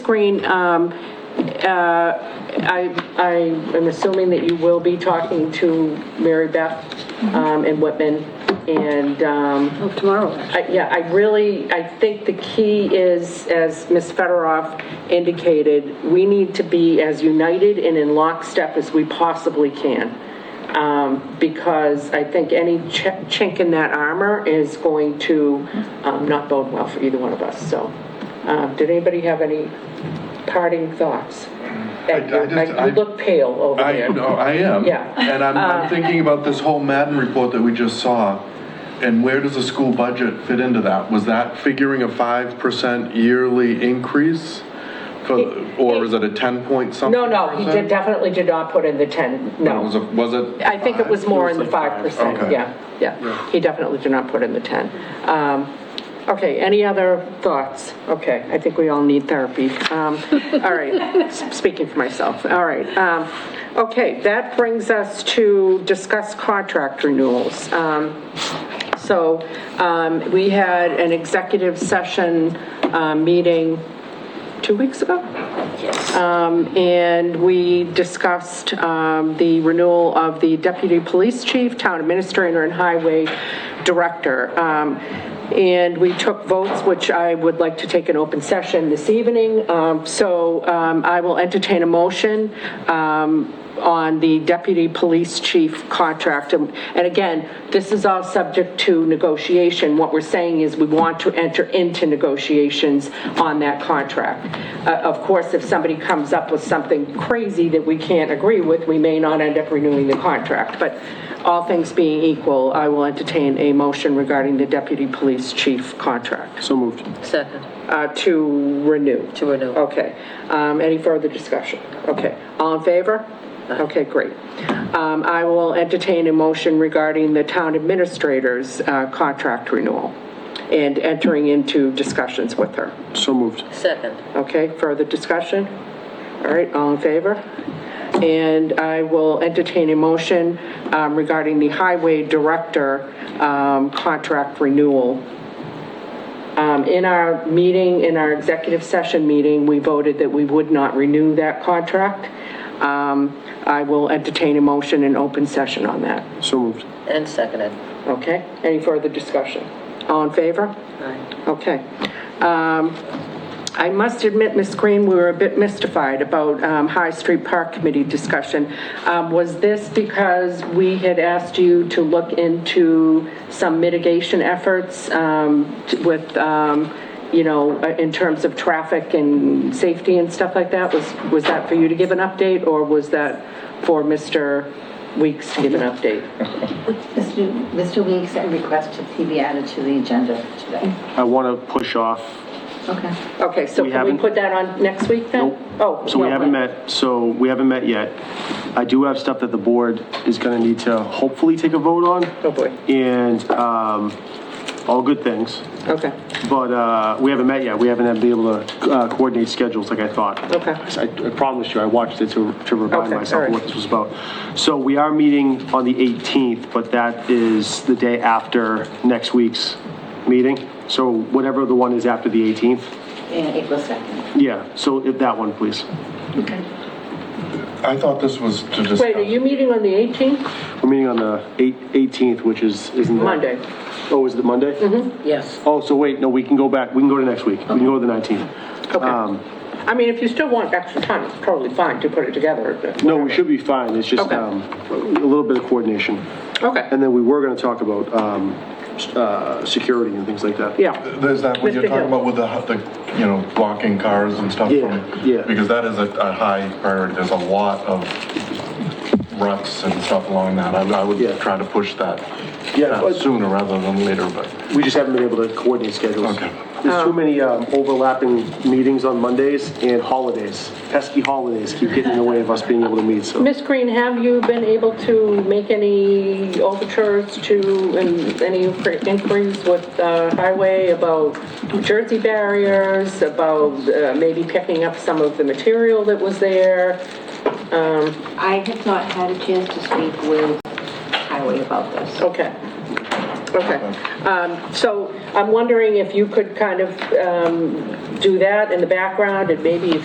Corrine, um, uh, I, I am assuming that you will be talking to Mary Beth um, and Whitman, and, um, Of Oh, tomorrow, actually. I- yeah, I really, I think the key is, as Ms. Federoff indicated, we need to be as united and in lockstep as we possibly can, Um, because I think any chi- chink in that armor is going to um, not bode well for either one of us, so. uh, Did anybody have any parting thoughts? Ed, I just- You you look pale over I, there. no, I am. Yeah. Uh, And I'm, I'm thinking about this whole Madden report that we just saw, and where does the school budget fit into that? Was that figuring a five percent yearly increase for, or is it a ten point something? No, no, he did, percent? definitely did not put in the 10, no. Was it, was it? I think it was more in the five percent, Okay. yeah, yeah. He definitely did not put in the ten. Um, okay, any other thoughts? Okay, I think we all need therapy. Um, all right, s- speaking for myself, all right. Um, okay, that brings us to discuss contract renewals. Um, so, um, we had an executive session, uh, meeting two weeks ago? Um, And we discussed um, the renewal of the deputy police chief, town administrator, and highway director. Um, And we took votes, which I would like to take an open session this evening. Um, So um, I will entertain a motion um, on the deputy police chief contract. And and again, this is all subject to negotiation. What we're saying is we want to enter into negotiations on that contract. Uh, Of course, if somebody comes up with something crazy that we can't agree with, we may not end up renewing the contract. But all things being equal, I will entertain a motion regarding the deputy police chief contract So moved. Second. uh, to renew. To renew. Okay. Um, Any further discussion? Okay. All in favor? Okay, great. Um, I will entertain a motion regarding the town administrator's uh, contract renewal and entering into discussions with her. So moved. Second. Okay, further discussion? All right, all in favor? And I will entertain a motion um, regarding the highway director um, contract renewal. Um, In our meeting, in our executive session meeting, we voted that we would not renew that contract. Um, I will entertain a motion in open session on that. So moved. And seconded. Okay, any further discussion? All in favor? Aye. Okay. Um, I must admit, Ms. Green, we were a bit mystified about um, High Street Park Committee discussion. Um, Was this because we had asked you to look into some mitigation efforts um, t- with, um, you know, uh, in terms of traffic and safety and stuff like that? Was, was that for you to give an update, or was that for Mr. Weeks to give an update? Mr. Mr. Weeks, I request that he be added to the agenda for today. I want to push off. Okay. Okay, so We can we haven't- put that on next week then? Nope. Oh. So we no, haven't right. met, so we haven't met yet. I do have stuff that the board is going to need to hopefully take a vote on. Oh, boy. And um, all good things. Okay, But uh, we haven't met yet. We haven't been able to uh, coordinate schedules like I thought. Okay. I I promised you, I watched it to to remind Oh. Okay, myself alright. of what this was about. So we are meeting on the 18th, but that is the day after next week's meeting. So whatever the one is after the 18th. And April 2nd. Yeah, so if that one, please. Okay. I thought this was to discuss. wait, are you meeting on the 18th? We're meeting on the eight- 18th, which is, isn't that? Monday. Oh, is it Monday? Mm-hmm. Yes. Oh, so wait, no, we can go back, we can go to next week. We can go to the 19th. Um, Okay. I mean, if you still want extra time, it's totally fine to put it together. but No, whatever. we should be fine. It's just Okay. um, a little bit of coordination. Okay, And then we were going to talk about um, s- uh, security and things like that. yeah, There's that, what you're Mr. talking Hill. about with the, the, you know, blocking cars and stuff Yeah, from. yeah. Because that is a, a high priority. There's a lot of ruts and stuff along that. I, I would Yeah. try to push that Yeah, uh, but- sooner rather than later, but. We just haven't been able to coordinate schedules. Okay. There's Oh. too many um, overlapping meetings on Mondays and holidays. Pesky holidays keep getting in the way of us being able to meet, so. Miss Green, have you been able to make any overtures to, and any inquiries with uh, Highway about New Jersey barriers, about uh, maybe picking up some of the material that was there? I have not had a chance to speak with Highway about this. Okay. Okay. Um, So I'm wondering if you could kind of um, do that in the background, and maybe if